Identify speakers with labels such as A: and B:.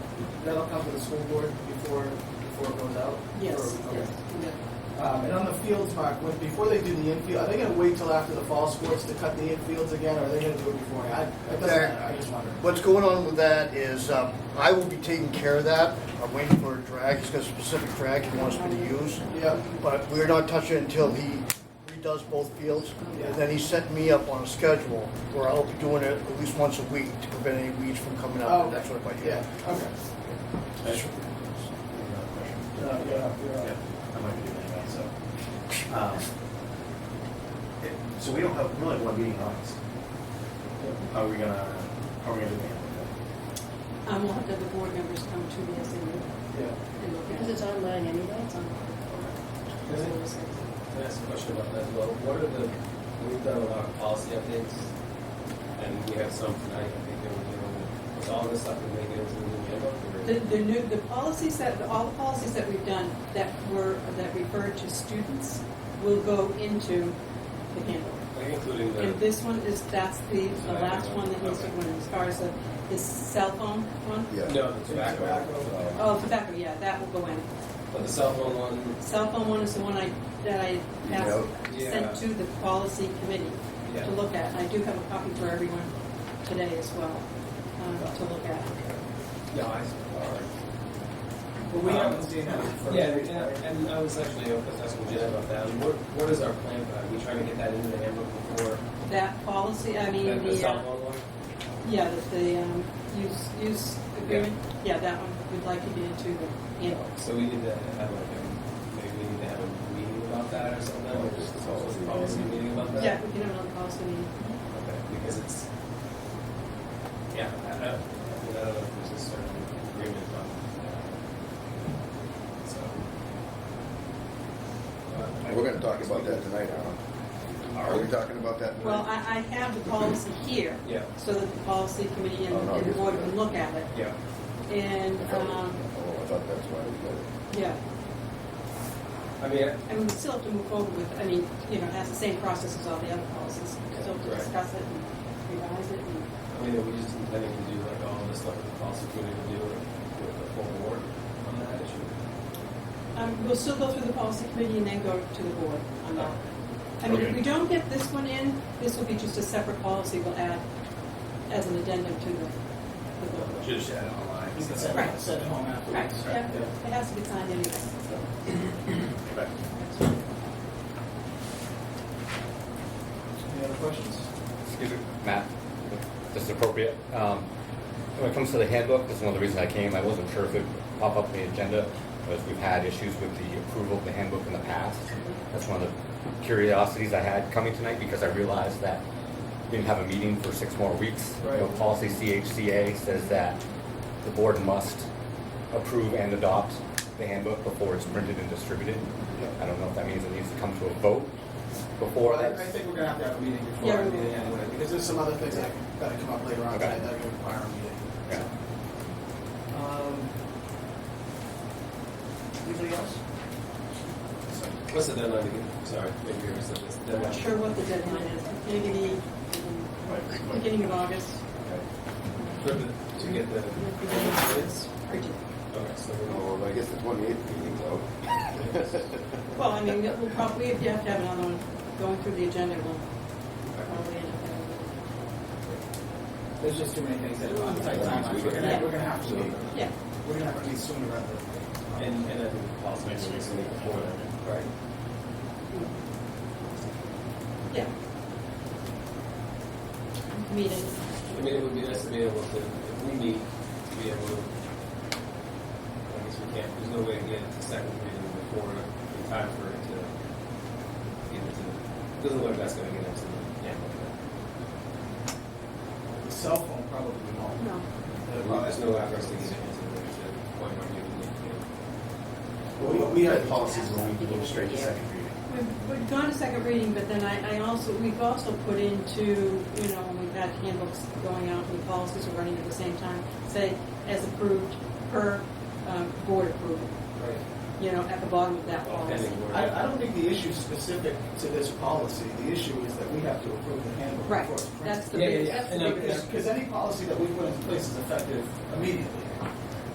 A: that'll come to the school board before, before it goes out?
B: Yes,
A: Or- okay.
B: yes. yeah.
A: Um, and on the fields, Mark, when, before they do the infield, are they gonna wait till after the fall sports to cut the infields again, or are they gonna do it before? I, it doesn't
C: There-
A: matter, I just wonder.
C: What's going on with that is, um, I will be taking care of that. I'm waiting for a drag, he's got a specific drag he wants me to use.
A: Yeah,
C: But we're not touching it until he redoes both fields. And then he set me up on a schedule where I'll be doing it at least once a week to prevent any weeds from coming
A: Oh,
C: up.
A: okay.
C: That's what I do.
A: yeah, okay. Uh,
D: That's-
A: Yeah, yeah,
D: yeah,
A: yeah.
D: I might be doing that, so. um, it- So we don't have, we only have one meeting in August. Are we gonna, are we gonna do that?
B: Um, we'll have to have the board members come to the SMU
A: Yeah.
B: and look at
E: Because
B: it.
E: it's online anyway, it's online.
F: Is it? Can I ask a question about that as well? What are the, we've done a lot of policy updates, and we have some tonight, I think, that we're dealing with. Was all this stuff that they gave us in the handbook? or-
B: The, the new, the policies that, all the policies that we've done that were, that referred to students will go into the handbook.
F: Like including
B: And
F: the,
B: this one is, that's the, the last one that needs to go in, as far as the, the cell phone one.
F: no, the tobacco.
B: Oh, tobacco, yeah, that will go in.
F: But the cell phone one,
B: Cell phone one is the one I, that I passed,
F: Yeah.
B: sent to the policy committee
F: Yeah.
B: to look at. I do have a copy for everyone today as well, um, to look at.
F: no, I, all right. Um,
A: But we haven't seen that. for-
F: Yeah, and- and I was actually, I was asking Jen about that. What, what is our plan for that? Are we trying to get that into the handbook before
B: That policy, I mean,
F: the- the
B: the,
F: cell
B: uh,
F: phone one?
B: yeah, the, the, um, use, use agreement, yeah, that one, we'd like to get into the, handbook.
F: So we need to have like, a- maybe we need to have a meeting about that or something, or just a policy, policy meeting about that?
B: yeah, we can have another policy meeting.
F: Okay, because it's, yeah, I don't, know. I mean, I don't know if there's a certain agreement on that. So. uh, I-
G: We're gonna talk about that tonight, Alan. Are we talking about that? tonight?
B: Well, I, I have the policy here,
F: Yeah,
B: so that the policy committee and
G: Oh, no,
B: and the
G: yes,
B: board
G: yeah.
B: can look at it.
F: yeah.
B: And, um,
G: Oh, I thought that's why we got it.
B: yeah,
F: I mean, I-
B: I mean, we still have to move forward with, I mean, you know, it has the same process as all the other policies.
F: Yeah,
B: Still have to
F: right.
B: discuss it and revise it and,
F: I mean, are we just intending to do like all this stuff with the policy committee to do like, with the full board on that issue?
B: um, we'll still go through the policy committee and then go to the board on that. I mean, if we don't get this one in, this will be just a separate policy we'll add as an addendum to the, the board.
D: Just add online.
A: You can send,
B: Right.
A: send it home afterwards.
B: Right, yeah, it has to be signed anyway, so.
D: Right.
A: Any other questions?
H: Excuse me, Matt, if this is appropriate. Um, When it comes to the handbook, this is one of the reasons I came. I wasn't sure if it would pop up on the agenda, because we've had issues with the approval of the handbook in the past. That's one of the curiosities I had coming tonight, because I realized that we didn't have a meeting for six more weeks. You know,
A: Right.
H: Policy CHCA says that the board must approve and adopt the handbook before it's printed and distributed. I don't know if that means it needs to come to a vote before
A: Well, I
H: that's...
A: I think we're gonna have to have a meeting before
B: Yeah,
A: our
B: we will.
A: meeting anyway, because there's some other things that gotta come up later on
H: Okay.
A: tonight that are gonna require a meeting.
H: Yeah.
A: Um, Anybody else?
F: What's the deadline again? Sorry, maybe you already said this.
B: I'm
F: Deadline.
B: not sure what the deadline is, maybe the um, beginning of August.
F: For the- To get the.
B: Beginning of August, or do-
F: Okay, so we're all.
G: Oh, well, I guess the twenty-eighth meeting's out.
B: Well, I mean, we'll probably, if you have to have another one, going through the agenda, we'll probably end up having,
A: There's just too many things that are on tight timelines, we're gonna, we're gonna have to, meet.
B: yeah.
A: we're gonna have to meet sooner rather than later.
F: And, and I think the policy committee is meeting before that. Right.
B: Yeah. Meeting,
F: I mean, it would be nice to be able to, if we meet, to be able to, I guess we can't, there's no way to get it to second reading before, in time for it to get into, doesn't look like that's gonna get into the, yeah.
A: The cell phone probably won't.
B: no,
F: Well, there's no address to get it into the, the point where you need to.
D: Well, we- we had policies where we go straight to second reading.
B: we've, we've gone to second reading, but then I, I also, we've also put into, you know, when we've had handbooks going out, and policies are running at the same time, say, as approved per, um, board approval,
F: Right.
B: you know, at the bottom of that
F: Well,
B: policy.
F: pending board.
A: I, I don't think the issue's specific to this policy. The issue is that we have to approve the handbook
B: Right,
A: before it's printed.
B: that's the
F: Yeah, yeah,
B: big,
F: yeah.
B: that's the
F: And I-
B: big
F: yeah.
A: Because, because any policy that we put in place is effective immediately.